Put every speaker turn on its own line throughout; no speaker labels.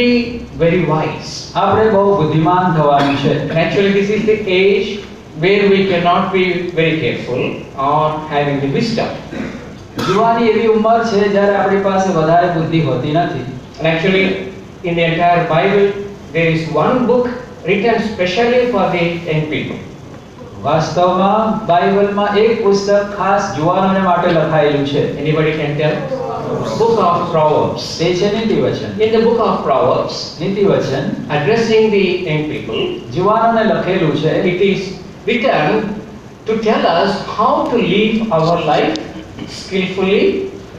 be very wise.
આપણે બહુ બુદ્ધિમાન થવાનું છે
Naturally, this is the age where we cannot be very careful on having the wisdom.
જુવાની એવી ઉંમર છે જ્યારે આપણી પાસે વધારે બુદ્ધિ હોતી નથી
And actually, in the entire Bible, there is one book written specially for the young people.
વાસ્તવમાં બાઇબલમાં એક પુસ્તક ખાસ જુવાનોને માટે લખાયેલું છે
Anybody can tell? Book of Proverbs.
તે છે નીતિવચન
In the book of Proverbs,
નીતિવચન
addressing the young people,
જુવાનોને લખેલું છે
it is written to tell us how to live our life skillfully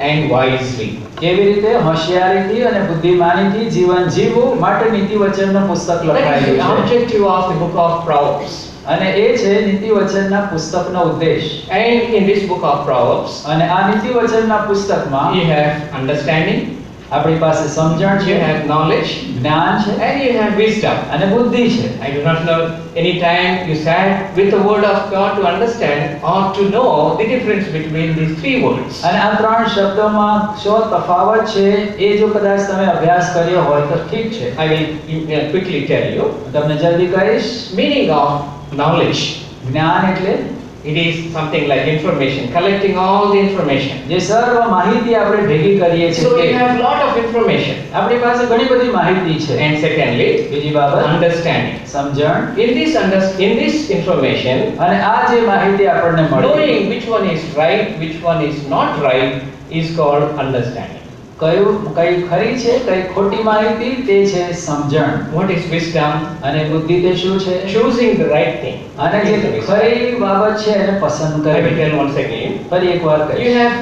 and wisely.
કેવી રીતે હોશિયારીથી અને બુદ્ધિમાનીથી જીવન જીવવું માટે નીતિવચનનું પુસ્તક
That is the
લખાયેલું છે
objective of the book of Proverbs.
અને એ છે નીતિવચનના પુસ્તકનો ઉદ્દેશ
And in this book of Proverbs,
અને આ નીતિવચનના
you
પુસ્તકમાં
have understanding,
આપણી પાસે સમજણ
you
છે
have knowledge,
જ્ઞાન છે
and you have wisdom.
અને બુદ્ધિ છે
I do not know any time you sat with the word of God to understand or to know the difference between these three words.
અને આ ત્રણ શબ્દોમાં શો તફાવત છે એ જો કદાચ તમે અભ્યાસ કર્યો હોય તો ઠીક છે
I will uh, quickly tell you.
હું તમને જલ્દી કહીશ
Meaning of knowledge.
જ્ઞાન એટલે
It is something like information, collecting all the information.
જે સર્વ માહિતી આપણે ભેગી કરીએ
So we
છીએ તે.
have lot of information.
આપણી પાસે ઘણી બધી માહિતી છે
And secondly,
બીજી બાબત
understanding.
સમજણ
In this, under- in this information,
અને આ જે માહિતી આપણને મળી
Knowing which one is right, which one is not right is called understanding.
કયું કઈ ખરી છે કઈ ખોટી માહિતી તે છે સમજણ
What is wisdom?
અને બુદ્ધિ તે શું છે
Choosing the right thing.
અને
is the
જે
wisdom.
ખરી બાબત છે એને પસંદ
I will
કરવી
tell once again.
ફરી એકવાર
You
કહીશ
have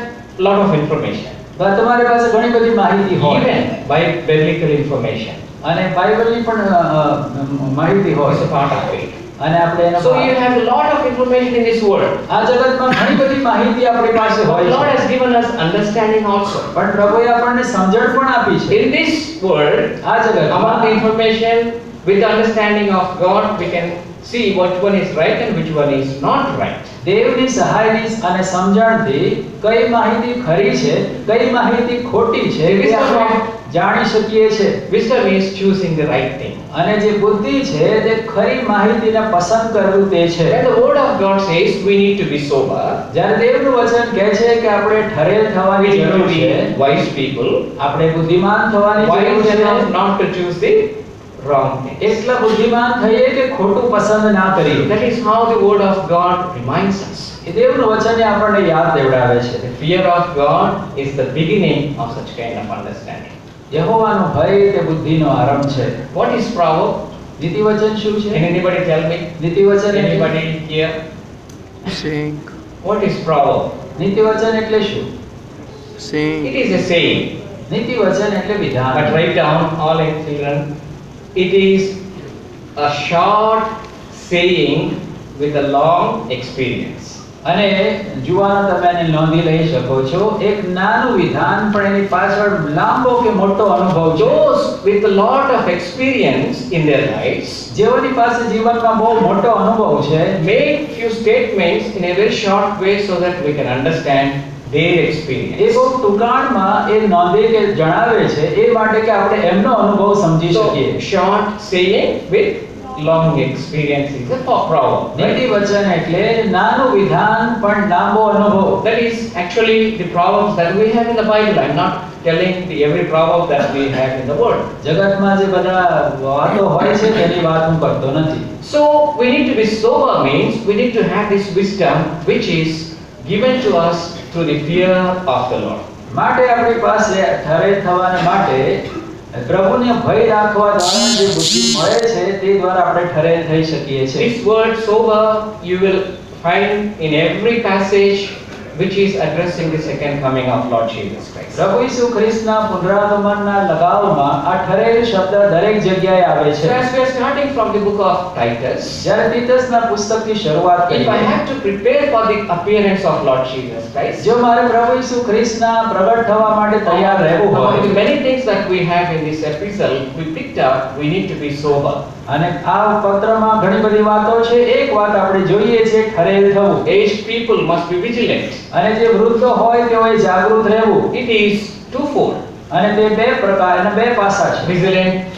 lot of information,
પણ તમારી પાસે ઘણી બધી માહિતી હોય
even by biblical information.
અને બાઇબલની પણ અ, અ, માહિતી
It's a
હોય
part of it.
અને આપણે એનો
So you have a lot of information in this world.
આ જગતમાં ઘણી બધી માહિતી આપણી પાસે
The
હોય
Lord
છે
has given us understanding also.
પણ પ્રભુએ આપણને સમજણ પણ આપી છે
In this world,
આ
among the
જગત
information, with the understanding of God, we can see what one is right and which one is not right.
દેવની સહાયની અને સમજણથી કઈ માહિતી ખરી છે કઈ માહિતી ખોટી છે એ આપણે જાણી શકીએ છે
Wisdom is choosing the right thing.
અને જે બુદ્ધિ છે તે ખરી માહિતીને પસંદ કરવું તે છે
When the word of God says we need to be sober,
જ્યારે દેવનું વચન કહે છે કે આપણે ઠરેલ
we
થવાની
need to
જરૂર છે
be wise people.
આપણે બુદ્ધિમાન થવાની જરૂર
Wise
છે
enough not to choose the wrong thing.
એટલા બુદ્ધિમાન થઈએ કે ખોટું પસંદ ના કરીએ
That is how the word of God reminds us.
એ દેવનું વચન એ આપણને યાદ દેવડાવે
The
છે
fear of God is the beginning of such kind of understanding.
યહોવાનો ભય તે બુદ્ધિનો આરંભ છે
What is proverb?
નીતિવચન શું
Can
છે
anybody tell me?
નીતિવચન એટલે
Anybody here?
Saying,
What is proverb?
નીતિવચન એટલે શું
It
saying,
is a saying,
નીતિવચન એટલે
but
વિધાન
write down all in children. It is a short saying with a long experience.
અને જુવાનો તમે એને નોંધી લઈ શકો છો એક નાનું વિધાન પણ એની પાછળ લાંબો કે મોટો અનુભવ જો
Those with a lot of experience in their lives
જેઓની પાસે જીવનમાં બહુ મોટો અનુભવ છે
make few statements in a very short way so that we can understand their experience.
એ બહુ ટૂંકાણમાં એ નોંધે કે જણાવે છે એ માટે કે આપણે એમનો અનુભવ સમજી
So,
શકીએ
short saying with long experience is a po- proverb.
નીતિ
right?
વચન એટલે નાનું વિધાન પણ લાંબો અનુભવ
That is actually the proverbs that we have in the Bible. I'm not telling the every proverb that we have in the world.
જગતમાં જે બધા વાતો હોય છે તેની વાત હું કરતો નથી
So, we need to be sober means we need to have this wisdom which is given to us through the fear of the Lord.
માટે આપણી પાસે ઠરેલ થવાને માટે પ્રભુને ભય રાખવા દ્વારા જે બુદ્ધિ મળે છે તે દ્વારા આપણે ઠરેલ થઈ શકીએ છીએ
This word sober you will find in every passage which is addressing the second coming of Lord Jesus Christ.
પ્રભુ ઈસુ ખ્રિસ્તના પુનરાગમનના લગાવમાં આ ઠરેલ શબ્દ દરેક જગ્યાએ આવે
So
છે
as we are starting from the book of Titus,
જ્યારે તીતસના પુસ્તકથી શરૂઆત
if I
કરીએ
have to prepare for the appearance of Lord Jesus Christ,
જો મારે પ્રભુ ઈસુ ખ્રિસ્તના પ્રગટ થવા માટે તૈયાર રહેવું
among the
હોય
many things that we have in this epistle, we picked up, we need to be sober.
અને આ પત્રમાં ઘણી બધી વાતો છે એક વાત આપણે જોઈએ છે ઠરેલ થવું
Aged people must be vigilant.
અને જે વૃદ્ધ હોય તેઓએ જાગૃત રહેવું
It is twofold.
અને તે બે પ્રકાર અને બે પાસા છે
vigilant,